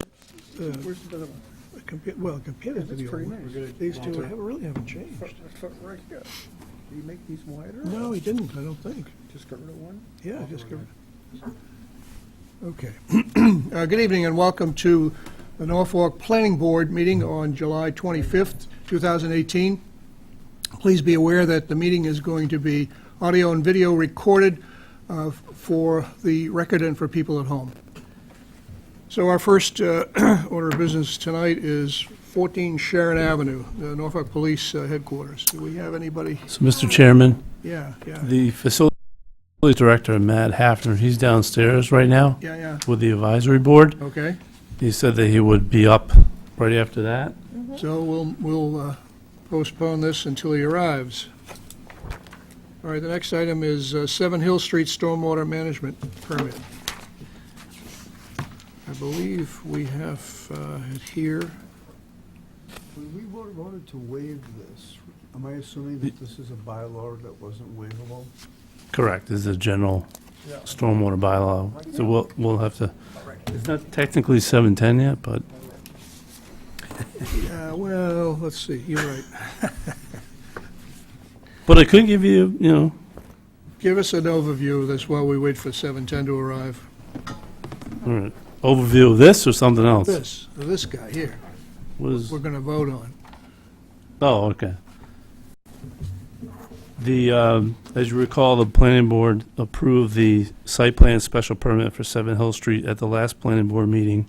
uh, Where's the other one? compa- well, compared Yeah, to that's the pretty old one. nice. We're gonna These want two to- have- really haven't changed. Front- front Right here. Do you make these wider? No, or he didn't, I don't think. Just got rid of one? Yeah, just go. Alderman. Okay. Uh, Good evening and welcome to the Norfolk Planning Board meeting on July 25th, 2018. Please be aware that the meeting is going to be audio and video recorded uh, for the record and for people at home. So our first uh, order of business tonight is 14 Sharon Avenue, the Norfolk Police uh, Headquarters. Do we have anybody? So, Mr. Chairman, Yeah, yeah, the facility director, Matt Hafner, he's downstairs right now yeah, yeah, with the advisory board. okay. He said that he would be up right after that. So we'll, we'll uh, postpone this until he arrives. All right, the next item is uh, Seven Hill Street Stormwater Management Permit. I believe we have uh, it here. When we voted- voted to waive this, am I assuming that this is a bylaw that wasn't waivable? Correct, this is a general stormwater bylaw. So we'll, we'll have to, it's not technically 710 yet, but Yeah, well, let's see, you're right. But I could give you, you know, Give us an overview of this while we wait for 710 to arrive. all right, overview of this or something else. This, this guy here, What is, we're going to vote on. oh, okay. The, um, as you recall, the planning board approved the site plan special permit for Seven Hill Street at the last planning board meeting.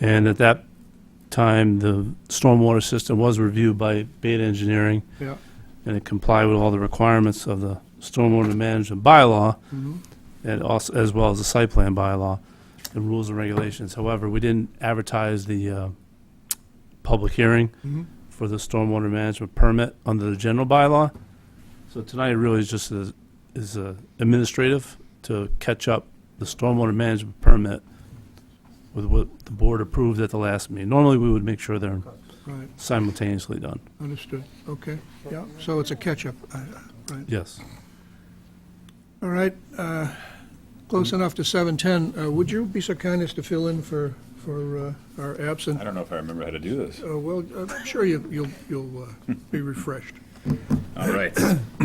And at that time, the stormwater system was reviewed by Beta Engineering. Yeah. And it complied with all the requirements of the stormwater management bylaw. Mhm. and also, as well as the site plan bylaw and rules and regulations. However, we didn't advertise the uh, public hearing Mhm. for the stormwater management permit under the general bylaw. So tonight really is just a- is a administrative to catch up the stormwater management permit with what the board approved at the last meeting. Normally, we would make sure they're Right, simultaneously done. understood, okay, yeah, so it's a catch-up, uh, right. Yes. All right, uh, close enough to 7:10. Uh, Would you be so kind as to fill in for, for uh, our absent? I don't know if I remember how to do this. Uh, Well, I'm sure you- you'll, you'll uh, be refreshed. All right.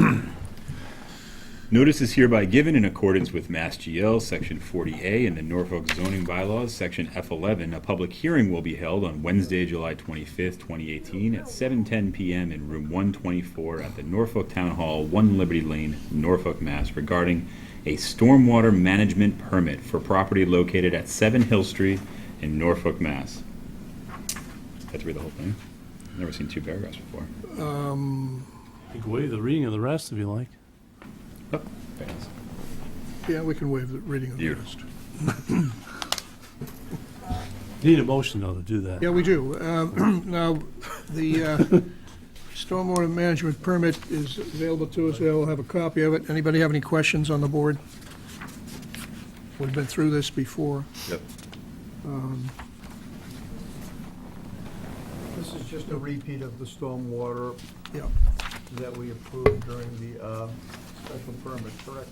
Notice is hereby given in accordance with Mass GL, Section 40A, and the Norfolk zoning bylaws, Section F11. A public hearing will be held on Wednesday, July 25th, 2018, at 7:10 PM in Room 124 at the Norfolk Town Hall, 1 Liberty Lane, Norfolk, Mass, regarding a stormwater management permit for property located at 7 Hill Street in Norfolk, Mass. Had to read the whole thing. Never seen two paragraphs before. You can waive the reading of the rest if you like. Oh, there it is. Yeah, we can waive the reading of the Beautiful. rest. Need a motion, though, to do that. Yeah, we do. Um, Now, the uh, stormwater management permit is available to us, we'll have a copy of it. Anybody have any questions on the board? We've been through this before. Um, Yep. This is just a repeat of the stormwater Yeah, that we approved during the uh, special permit, correct?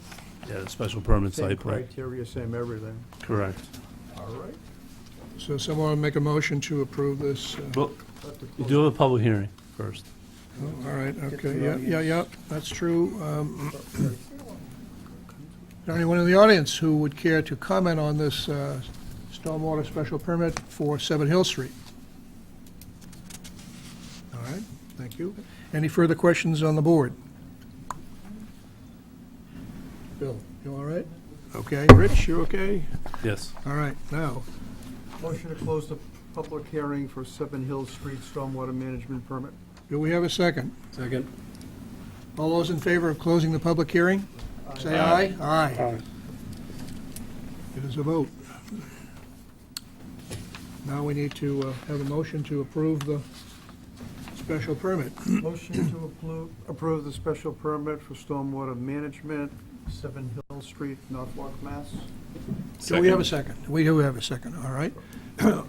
Yeah, the special permit Same site plan. criteria, same everything. Correct. All right. so someone will make a motion to approve this. uh, Well, Let the you do have a public hearing first. Oh, All right, okay, the yeah, yeah, audience. yeah, that's true. Um, Is there anyone in the audience who would care to comment on this uh, stormwater special permit for Seven Hill Street? All right, thank you. Any further questions on the board? Bill, you all right? Okay, Rich, you okay? Yes. All right, now, Motion to close the public hearing for Seven Hills Street Stormwater Management Permit. do we have a second? Second. All those in favor of closing the public hearing? Say aye. Aye. It is a vote. Now we need to uh, have a motion to approve the special permit. Motion to approve, approve the special permit for stormwater management, Seven Hills Street, Norfolk, Mass. Do we have a second? We do have a second, all right.